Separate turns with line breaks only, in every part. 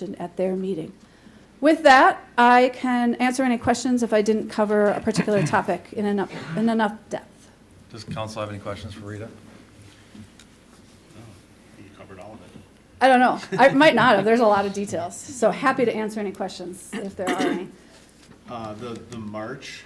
mentioned at their meeting. With that, I can answer any questions if I didn't cover a particular topic in enough, in enough depth.
Does council have any questions for Rita?
You covered all of it.
I don't know, I might not have, there's a lot of details, so happy to answer any questions if there are any.
Uh, the, the March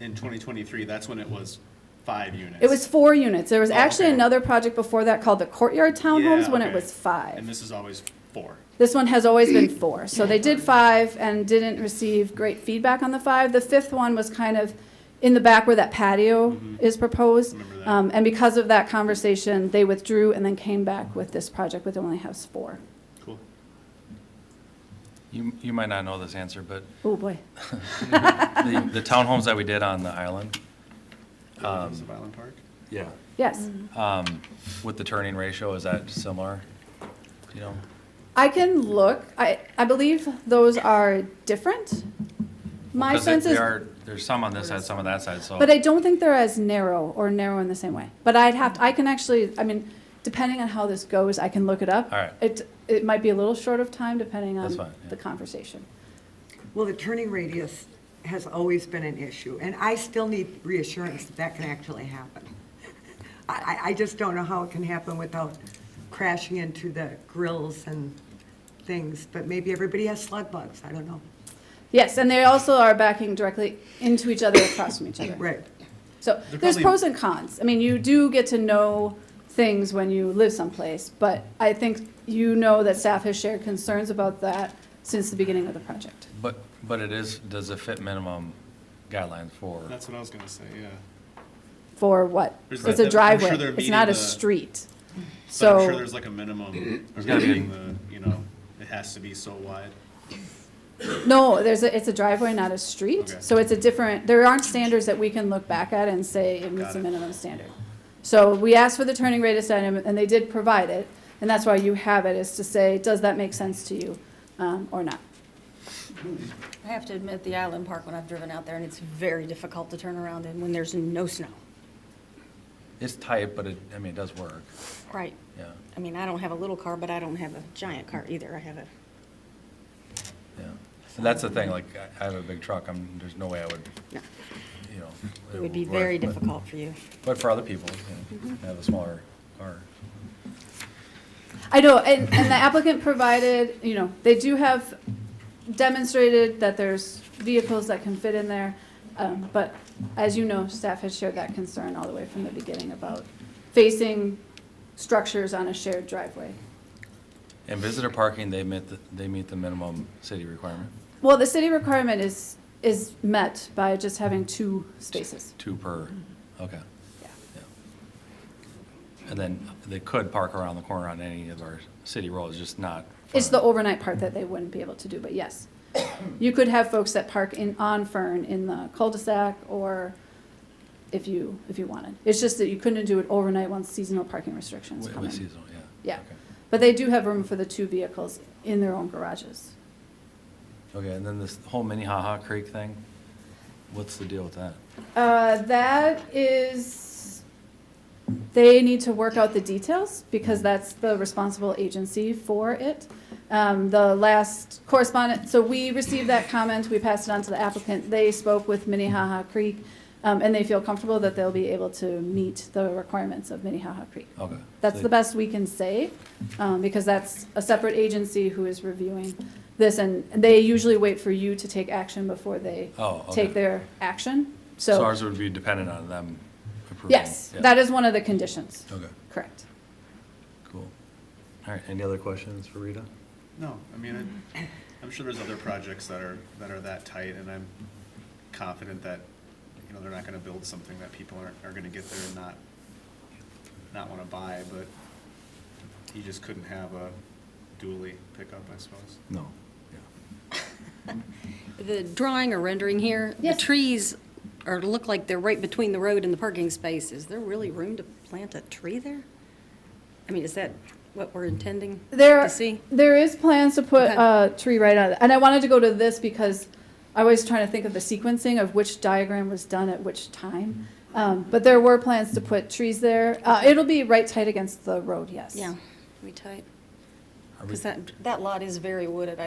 in twenty twenty-three, that's when it was five units.
It was four units, there was
Oh,
actually
okay.
another project before that called the Courtyard Townhomes
Yeah,
when it
okay.
was
And
five.
this is always four.
This one has always been four, so they did five and didn't receive great feedback on the five. The fifth one was kind of in the back where that patio
Mhm.
is proposed.
Remember that?
Um, and because of that conversation, they withdrew and then came back with this project with only house four.
Cool.
You, you might not know this answer, but
Oh, boy.
the, the townhomes that we did on the island,
Um, Island Park?
yeah,
Yes.
um, with the turning ratio, is that similar? Do You know,
I can look. I, I believe those are different. My
'Cause
sense
there
is,
are- There's some on this side, some on that side,
Oh.
so.
but I don't think they're as narrow or narrow in the same way. But I'd have, I can actually, I mean, depending on how this goes, I can look it up.
All right.
It, it might be a little short of time depending
That's
on
fine, yeah.
the conversation.
Well, the turning radius has always been an issue, and I still need reassurance that that can actually happen. I, I- I just don't know how it can happen without crashing into the grills and things, but maybe everybody has slug bugs, I don't know.
Yes, and they also are backing directly into each other, across from each other.
Right,
So
They're
there's
probably-
pros and cons. I mean, you do get to know things when you live someplace, but I think you know that staff has shared concerns about that since the beginning of the project.
But, but it is, does it fit minimum guidelines for,
That's what I was gonna say, yeah.
For what?
Is
It's
that-
a
I'm sure
driveway.
they're
It's not a
meeting the-
street.
But I'm sure
So,
there's like a minimum. There's
gotta be a-
the, you know, it has to be so wide.
no, there's, a it's a driveway, not a street.
Okay.
So it's a different, there aren't standards that we can look back at and say it meets
Got
a
it.
minimum standard. So we asked for the turning radius item, and they did provide it, and that's why you have it, is to say, does that make sense to you, um, or not?
I have to admit, the Island Park, when I've driven out there, and it's very difficult to turn around in when there's no snow.
it's tight, but it, I mean, it does work,
Right.
yeah,
I mean, I don't have a little car, but I don't have a giant
Mm-hmm.
car either. I have a,
yeah. And that's the thing, like, I- I have a big truck, I'm, there's no way I would,
no,
you know.
it would be
work,
very
but-
difficult for you.
But for other people, you
Mm-hmm.
know, have a smaller car.
I know, and, and the applicant provided, you know, they do have demonstrated that there's vehicles that can fit in there. Um, but as you know, staff has shared that concern all the way from the beginning about facing structures on a shared driveway.
And visitor parking, they meet, the- they meet the minimum city requirement,
Well, the city requirement is, is met by just having two spaces.
two per, okay.
Mm-hmm. Yeah.
yeah. And then they could park around the corner on any of our city roads, just not.
It's the
front.
overnight part that they wouldn't be able to do, but yes. You could have folks that park in, on Fern in the cul-de-sac or if you, if you wanted. It's just that you couldn't do it overnight once seasonal parking restrictions
Wi-
come
With
in.
seasonal, yeah.
Yeah.
okay.
But they do have room for the two vehicles in their own garages.
Okay, and then this whole Minnehaha Creek thing, what's the deal with that?
Uh, that is, they need to work out the details because that's the responsible agency for it. Um, the last correspondent, so we received that comment, we passed it on to the applicant. They spoke with Minnehaha Creek, um, and they feel comfortable that they'll be able to meet the requirements of Minnehaha Creek.
Okay.
That's the
best.
best we can say, um, because that's a separate agency who is reviewing this, and they usually wait for you to take action before they
Oh, okay.
take their action,
So ours would be dependent on them approving.
Yes,
yeah.
that is one of the conditions.
Okay,
Correct.
cool. All right, any other questions for Rita?
No, I mean, I- I'm sure there's other projects that are, that are that tight, and I'm confident that, you know, they're not gonna build something that people aren't, are gonna get there and not, not wanna buy, but you just couldn't have a dually pickup, I suppose.
No, yeah.
The drawing or rendering here, the
Yes.
trees are, look like they're right between the road and the parking space. Is there really room to plant a tree there? I mean, is that what we're intending
There,
to see?
there is plans to put
Okay.
a tree right on, it. and I wanted to go to this because I was trying to think of the sequencing of which diagram was done at which time.
Mm-hmm.
Um, but there were plans to put trees there. Uh, it'll be right tight against the road, yes.
Yeah, we tight.
Are we-
Because that, that lot is very wooded. I